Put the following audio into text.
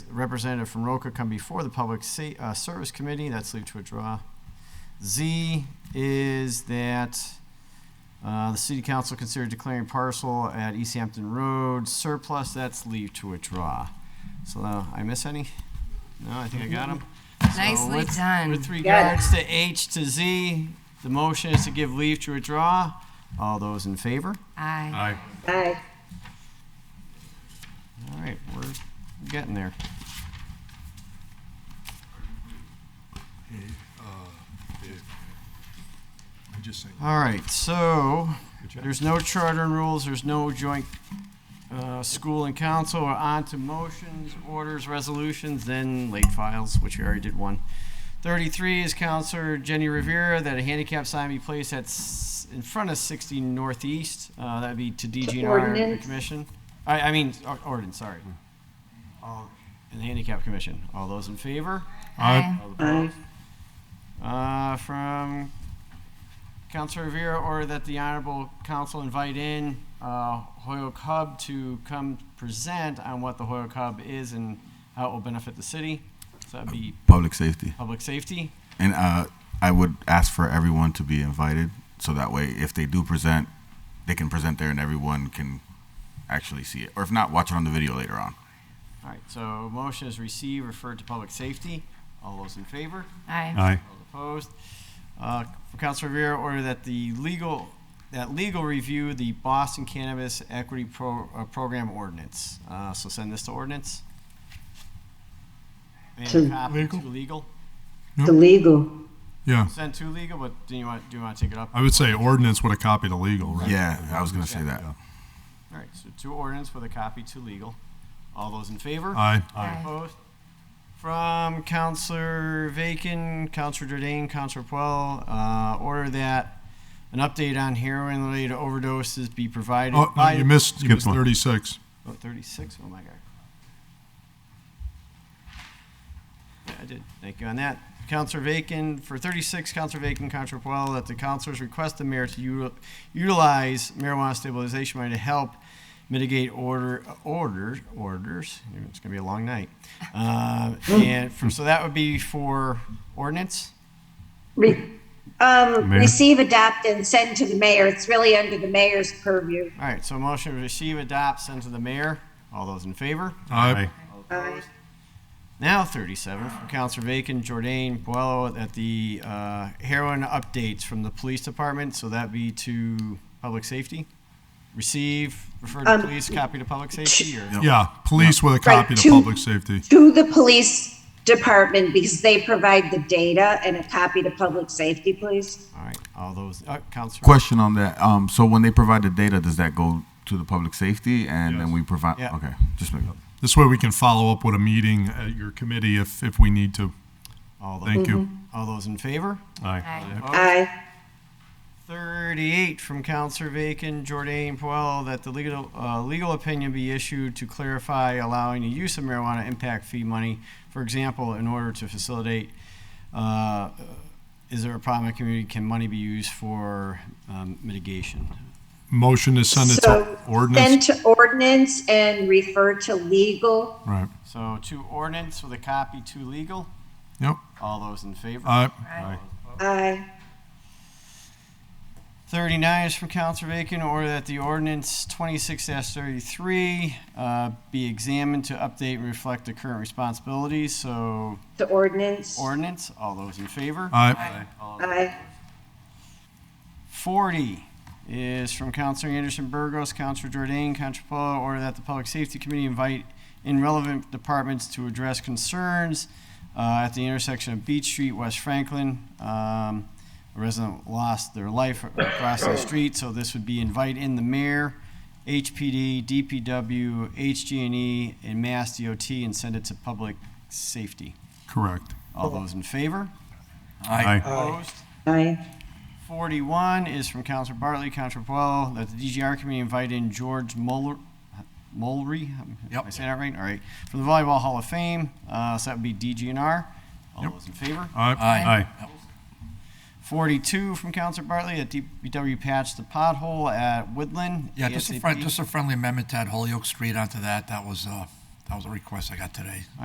representative from Roca come before the Public Sa- uh, Service Committee, that's leave to withdraw. Z is that uh, the city council considered declaring parcel at East Hampton Road surplus, that's leave to withdraw. So uh, I miss any? No, I think I got them. Mm-hmm. Nicely done. With regards to H to Z, the motion is to give leave to withdraw. All those in favor? Aye. Aye. Aye. All right, we're getting there. I just saying. All right, so job. there's no charter and rules, there's no joint uh, school and council. We're on to motions, orders, resolutions, then late files, which we already did one. 33 is Counselor Jenny Rivera that a handicap sign be placed at, s- in front of 60 Northeast. Uh, That'd be to DGNR, the Ordinance. commission. I, I mean, or- ordinance, sorry. All- And the handicap commission. All those in favor? Aye. All opposed? Aye. Uh, from Councilor Rivera, or that the Honorable Council invite in uh, Hoyoke Hub to come present on what the Hoyoke Hub is and how it will benefit the city. So that'd be public safety. public safety. And uh, I would ask for everyone to be invited, so that way, if they do present, they can present there and everyone can actually see it. Or if not, watch it on the video later on. All right, so motion is received, referred to public safety. All those in favor? Aye. Aye. All opposed? Uh, From Councilor Rivera, order that the legal, that legal review the Boston Cannabis Equity Pro- uh, Program ordinance. Uh, So send this to ordinance. And To- copy to Legal? legal. To legal. Yeah, Send to legal, but do you want, do you want to take it up? I would say ordinance would have copied illegal, right? Yeah, I was gonna say that. All right, so to ordinance with a copy to legal. All those in favor? Aye. Aye. Opposed? From Counselor Vacan, Counselor Jordan, Counselor Puel, uh, order that an update on heroin-related overdoses be provided Oh, no, by. you missed, you Skip missed one. thirty-six. Oh, 36, oh my God. Yeah, I did, thank you on that. Counselor Vacan, for 36, Counselor Vacan, Counselor Puel, that the counselors request the mayor to util- utilize marijuana stabilization money to help mitigate order, orders, orders, it's gonna be a long night. Uh, And for, so that would be for ordinance? Re- Um, Mayor? receive, adopt, and send to the mayor. It's really under the mayor's purview. All right, so motion to receive, adopt, send to the mayor. All those in favor? Aye. Aye. Now 37 from Counselor Bacon, Jordan, Boello at the uh, heroin updates from the police department. So that be to public safety. Receive, refer to Um, police, copy to public safety. Or Yeah, police would have copied to two- public safety. To the police department because they provide the data and a copy to public safety, please. all right, all those. Uh, Counselor. Question on that. Um, so when they provide the data, does that go to the public safety and Yes. then we provide? Yeah. Okay, just make This way we can follow up with a meeting at your committee if, if we need to. All those, Thank you. all those in favor? Aye. Aye. Opposed? Aye. 38 from Counselor Bacon, Jordan, Puel, that the legal, uh, legal opinion be issued to clarify allowing the use of marijuana impact fee money, for example, in order to facilitate, uh, is there a problem in the community, can money be used for um, mitigation? Motion to send it So to Send ordinance. to ordinance and refer to legal. Right, So to ordinance with a copy to legal, yep. all those in favor? Aye. Aye. Aye. 39 is from Counselor Bacon, order that the ordinance 26-33 uh, be examined to update and reflect the current responsibilities, so To ordinance. ordinance, all those in favor? Aye. Aye. 40 is from Counselor Anderson Burgos, Counselor Jordan, Counselor Paul, order that the Public Safety Committee invite in relevant departments to address concerns uh, at the intersection of Beach Street, West Franklin. Um, A resident lost their life across the street, so this would be invite in the mayor, HPD, DPW, HG&E, and Mass DOT, and send it to Public Safety. Correct. All those in favor? Aye. Opposed? Aye. 41 is from Counselor Bartley, Counselor Puelo, that the DGR committee invite in George Moller, Mulry? Am I saying that right? All right. From the Volleyball Hall of Fame, uh, so that would be DGNR. All those in favor? Aye. 42 from Counselor Bartley, that DPW patch the pothole at Woodland. Yeah, just a friend, ASAP. just a friendly amendment to add Holyoke Street onto that. That was, uh, that was a request I got today.